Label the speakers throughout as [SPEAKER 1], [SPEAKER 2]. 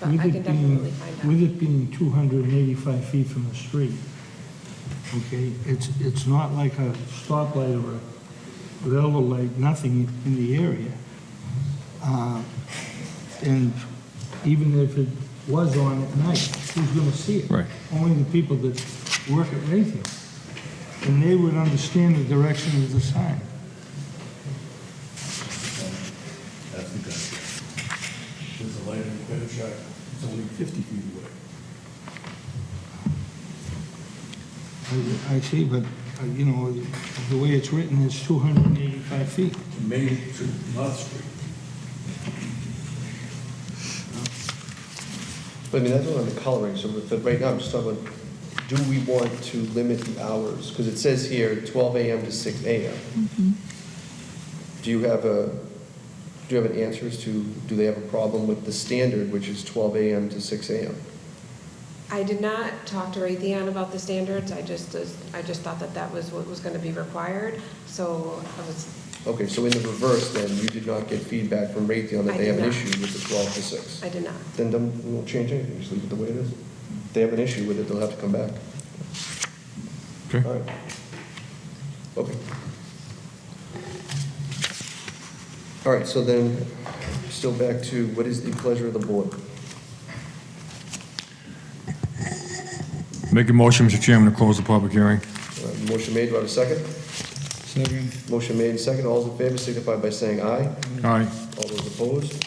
[SPEAKER 1] but
[SPEAKER 2] With
[SPEAKER 1] I
[SPEAKER 2] it
[SPEAKER 1] can
[SPEAKER 2] being-
[SPEAKER 1] definitely find out.
[SPEAKER 2] With it being 285 feet from the street, okay, it's, it's not like a stoplight or a yellow light, nothing in the area. Uh, And even if it was on at night, who's gonna see it?
[SPEAKER 3] Right.
[SPEAKER 2] Only the people that work at Raytheon. And they would understand the direction of the sign.
[SPEAKER 4] That's the gotcha. There's a light in the shack, it's only 50 feet away.
[SPEAKER 2] I- I see, but, uh, you know, the way it's written is 285 feet.
[SPEAKER 4] To Main, to North Street.
[SPEAKER 5] I mean, that's what I'm coloring, so with the- right now, I'm just talking about, do we want to limit the hours? Because it says here, 12 AM to 6 AM.
[SPEAKER 1] Mm-hmm.
[SPEAKER 5] Do you have a, do you have an answer as to, do they have a problem with the standard, which is 12 AM to 6 AM?
[SPEAKER 1] I did not talk to Raytheon about the standards, I just, I just thought that that was what was gonna be required, so I was,
[SPEAKER 5] Okay, so in the reverse, then, you did not get feedback from Raytheon
[SPEAKER 1] I
[SPEAKER 5] that they have an
[SPEAKER 1] did not.
[SPEAKER 5] issue with the 12 to 6?
[SPEAKER 1] I did not.
[SPEAKER 5] Then don't, we won't change anything, just leave it the way it is. If they have an issue with it, they'll have to come back.
[SPEAKER 3] Okay.
[SPEAKER 5] All right. Okay. All right, so then, still back to what is the pleasure of the board?
[SPEAKER 3] Make a motion, Mr. Chairman, to close the public hearing.
[SPEAKER 5] Uh, Motion made, do I have a second?
[SPEAKER 2] Second.
[SPEAKER 5] Motion made and second, all those in favor signify by saying aye.
[SPEAKER 3] Aye.
[SPEAKER 5] All those opposed?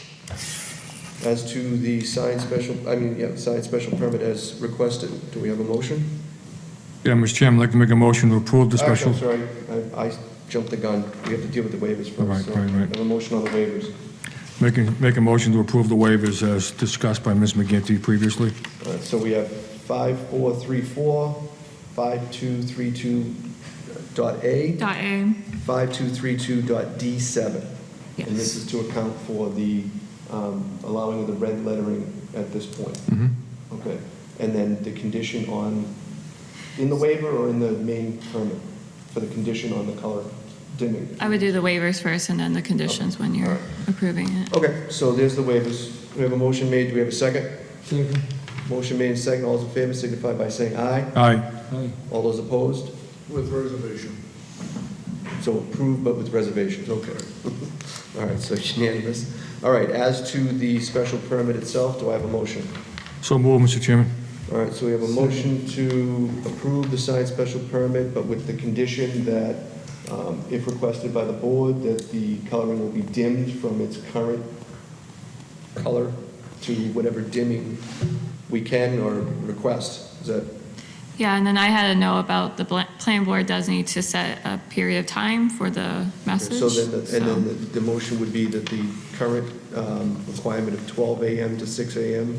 [SPEAKER 5] As to the signed special, I mean, yeah, signed special permit as requested, do we have a motion?
[SPEAKER 3] Yeah, Mr. Chairman, I'd like to make a motion to approve the
[SPEAKER 5] Actually,
[SPEAKER 3] special.
[SPEAKER 5] I'm Oh, sorry, I I jumped the gun. We have to deal with the waivers
[SPEAKER 3] Right,
[SPEAKER 5] first. So,
[SPEAKER 3] right, right.
[SPEAKER 5] I have a motion on the waivers.
[SPEAKER 3] Make a, make a motion to approve the waivers as discussed by Ms. McGinty previously.
[SPEAKER 5] All right, so we have 5434, 5232 dot A,
[SPEAKER 6] Dot A.
[SPEAKER 5] 5232 dot D7. And this
[SPEAKER 6] Yes.
[SPEAKER 5] is to account for the um, allowing of the red lettering at this point.
[SPEAKER 3] Mm-hmm.
[SPEAKER 5] Okay. And then the condition on, in the waiver or in the main permit, for the condition on the color dimming?
[SPEAKER 6] I would do the waivers first and then the conditions when
[SPEAKER 5] All
[SPEAKER 6] you're
[SPEAKER 5] right.
[SPEAKER 6] approving it.
[SPEAKER 5] Okay, so there's the waivers. We have a motion made, do we have a second?
[SPEAKER 2] Second.
[SPEAKER 5] Motion made and second, all those in favor signify by saying aye.
[SPEAKER 3] Aye.
[SPEAKER 2] Aye.
[SPEAKER 5] All those opposed?
[SPEAKER 4] With reservation.
[SPEAKER 5] So approved, but with reservations, okay. All right, so unanimous. All right, as to the special permit itself, do I have a motion?
[SPEAKER 3] So move, Mr. Chairman.
[SPEAKER 5] All right, so we have a motion to approve the signed special permit, but with the condition that um, if requested by the board, that the coloring will be dimmed from its current color to whatever dimming we can or request. Is that,
[SPEAKER 6] Yeah, and then I had to know about the bl- plan board does need to set a period of time for the message.
[SPEAKER 5] so then, the- and then
[SPEAKER 6] so-
[SPEAKER 5] the- the motion would be that the current um, requirement of 12 AM to 6 AM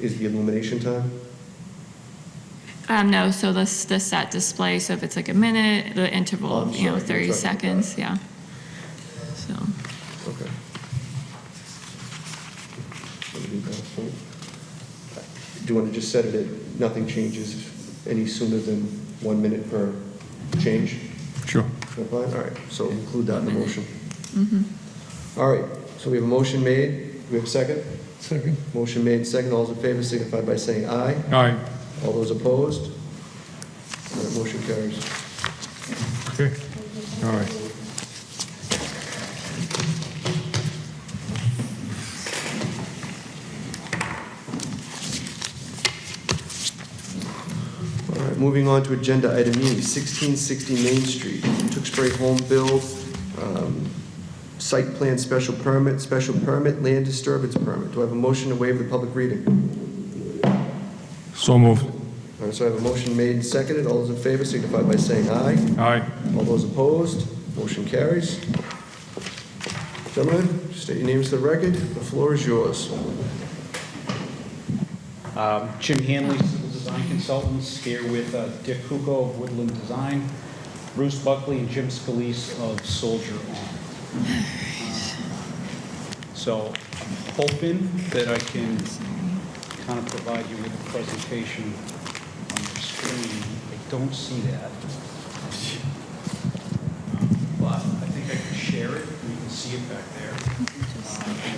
[SPEAKER 5] is the illumination time?
[SPEAKER 6] Um, no, so the, s- the set display, so if it's like a minute, the interval,
[SPEAKER 5] Oh, I'm
[SPEAKER 6] of, you know,
[SPEAKER 5] sorry, you're
[SPEAKER 6] 30
[SPEAKER 5] talking about
[SPEAKER 6] seconds, yeah. So.
[SPEAKER 5] Okay. Let me do that for you. Do you want to just set it at, nothing changes any sooner than one minute per change?
[SPEAKER 3] Sure.
[SPEAKER 5] That's fine? All right, so include that in the motion. All right, so we have a motion made, do we have a second?
[SPEAKER 2] Second.
[SPEAKER 5] Motion made, second, all those in favor signify by saying aye.
[SPEAKER 3] Aye.
[SPEAKER 5] All those opposed? All right, motion carries.
[SPEAKER 3] Okay. All right.
[SPEAKER 5] All right, moving on to agenda item E, 1660 Main Street, Tewksbury Home Build, um, site plan special permit, special permit, land disturbance permit. Do I have a motion to waive the public reading?
[SPEAKER 3] So move.
[SPEAKER 5] All right, so I have a motion made and seconded. All those in favor signify by saying aye.
[SPEAKER 3] Aye.
[SPEAKER 5] All those opposed, motion carries. Gentlemen, state your names to the record. The floor is yours.
[SPEAKER 7] Um, Jim Hanley, Civil Design Consultants, here with uh, Dick Kuko of Woodland Design, Bruce Buckley and Jim Scalise of Soldier On. So I'm hoping that I can kind of provide you with a presentation on your screen. I don't see that. But I think I can share it, you can see it back there. Uh,